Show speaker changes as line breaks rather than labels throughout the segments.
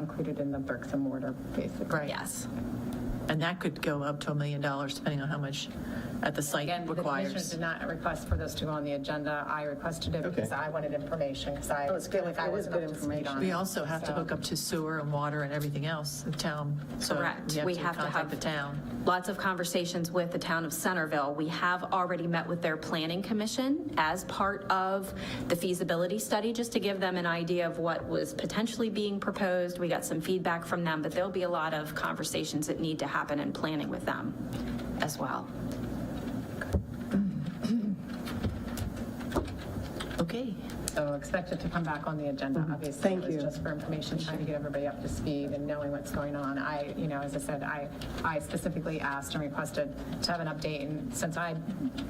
included in the bricks and mortar, basically.
Right.
Yes.
And that could go up to a million dollars depending on how much at the site
Again, the commissioners
requires.
did not request for this to go on the agenda. I requested it because I wanted information, because I
it's
feel
good-
like I
it was
wasn't
good
up to speed on
information.
We
it.
also have to hook up to sewer and water and everything else, the town. So
Correct.
Um, We have to
have
contact the town.
Lots of conversations with the town of Centerville. We have already met with their planning commission as part of the feasibility study, just to give them an idea of what was potentially being proposed. We got some feedback from them, but there'll be a lot of conversations that need to happen in planning with them as well.
Okay.
So expect it to come back on the agenda, obviously.
Thank
It
you.
was just for information, trying to get everybody up to speed and knowing what's going on. I, you know, as I said, I, I specifically asked and requested to have an update, and since I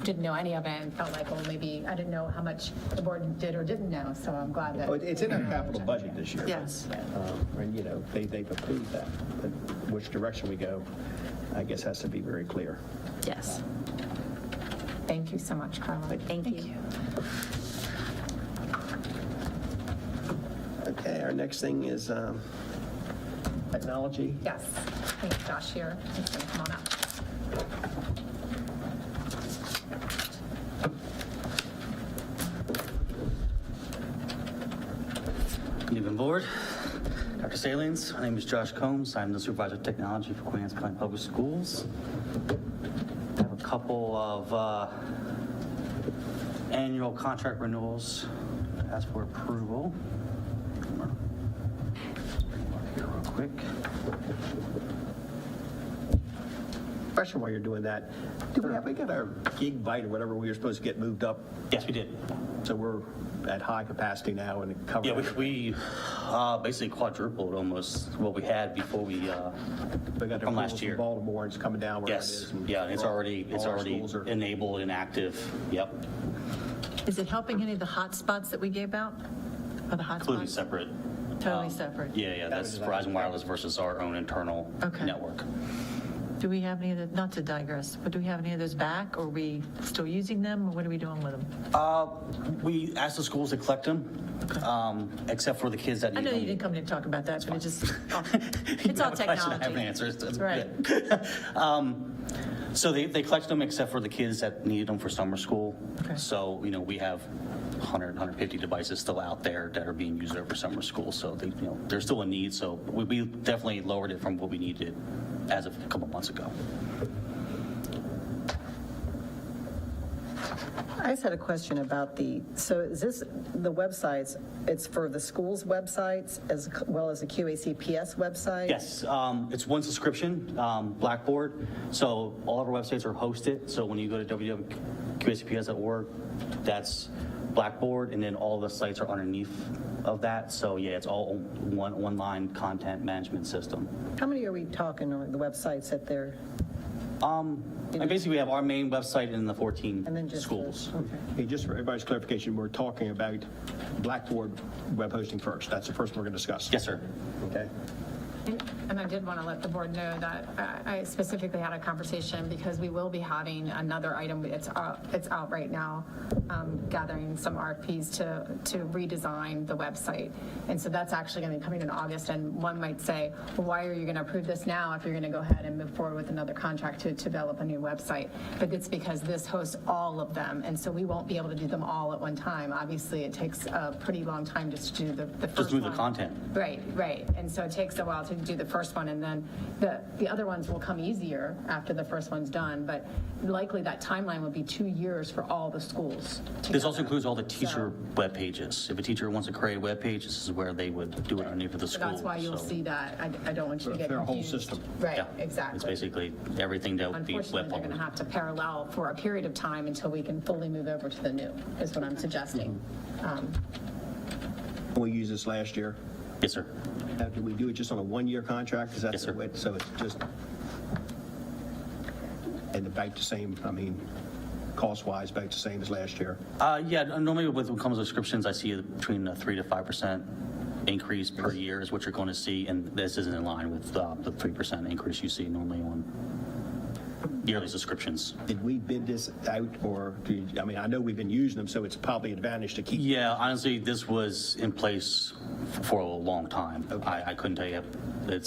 didn't know any of it and felt like, well, maybe, I didn't know how much the board did or didn't know, so I'm glad that.
Oh, it- It's in our capital budget this year.
Yes.
Um, And, you know, they, they've approved that, but which direction we go, I guess, has to be very clear.
Yes.
Thank you so much, Carla.
Thank you.
Okay, our next thing is um, technology.
Yes, thanks, Josh here. He's gonna come on up.
Good evening, board. Dr. Salines, my name is Josh Combs. I'm the supervisor of technology for Queen Anne's County Public Schools. I have a couple of uh, annual contract renewals to ask for approval. Here real quick.
Question while you're doing that, do we have, we got our gig bite or whatever we were supposed to get moved up?
Yes, we did.
So we're at high capacity now and it
Yeah, we,
covers,
we uh, basically quadrupled almost what we had before we, uh,
we got the
from last
approval
year.
from Baltimore, it's coming down where it
yes,
is. and
yeah, and it's already, it's
all our
already
schools are-
enabled and active. Yep,
Is it helping any of the hotspots that we gave out? Are the
completely
hotspots
separate.
totally separate?
Yeah, yeah, that's Verizon Wireless versus our own internal
Okay.
network.
Do we have any of the, not to digress, but do we have any of those back? Or Are we still using them or what are we doing with them?
We asked the schools to collect them, um, except for the kids that
I
need
know
them.
you didn't come in to talk about that, but it just, it's all
have a question, I
technology.
have an answer. It's- it's
Right.
So they, they collected them except for the kids that needed them for summer school.
Okay.
So, you know, we have 100, 150 devices still out there that are being used over summer school. So they, you know, there's still a need. So we, we definitely lowered it from what we needed as of a couple months ago.
I just had a question about the, so is this, the websites, it's for the school's websites as well as the QACPS website?
Yes, um, it's one subscription, um, Blackboard. So all of our websites are hosted. So when you go to www.qacps.org, that's Blackboard, and then all the sites are underneath of that. So yeah, it's all one online content management system.
How many are we talking on the websites that they're,
And basically, we have our main website and the 14
and then just? the-
schools.
Okay.
Hey, just for everybody's clarification, we're talking about Blackboard web hosting first. That's the first one we're going to discuss.
Yes, sir.
Okay.
And I did want to let the board know that uh, I specifically had a conversation because we will be having another item, it's out, it's out right now, um, gathering some RFPs to, to redesign the website. And so that's actually going to be coming in August, and one might say, "Well, why are you going to approve this now if you're going to go ahead and move forward with another contract to develop a new website? But it's because this hosts all of them, and so we won't be able to do them all at one time. Obviously, it takes a pretty long time just to do the, the first
Just move the
one.
content.
Right, right. And so it takes a while to do the first one, and then the, the other ones will come easier after the first one's done. But likely that timeline will be two years for all the schools.
This also includes all the teacher web pages. If a teacher wants to create a web page, this is where they would do it underneath of the
So
school.
that's why you'll
So,
see that. I, I don't want you to get
Their whole
confused.
system.
Right,
yeah. It's
exactly.
basically everything that would be web.
Unfortunately, they're going to
published.
have to parallel for a period of time until we can fully move over to the new, is what I'm
Mm-hmm.
suggesting. Um,
We used this last year.
Yes, sir.
Now, do we do it just on a one-year contract? Is that
Yes,
the
sir.
way- So it's just, and about the same, I mean, cost-wise, about the same as last year?
Uh, yeah, normally with when it comes to subscriptions, I see between a three to five percent increase per year is what you're going to see, and this isn't in line with uh, the three percent increase you see normally on yearly subscriptions.
Did we bid this out or, do you- I mean, I know we've been using them, so it's probably advantage to keep.
Yeah, honestly, this was in place for a long time. I, I couldn't tell you, it's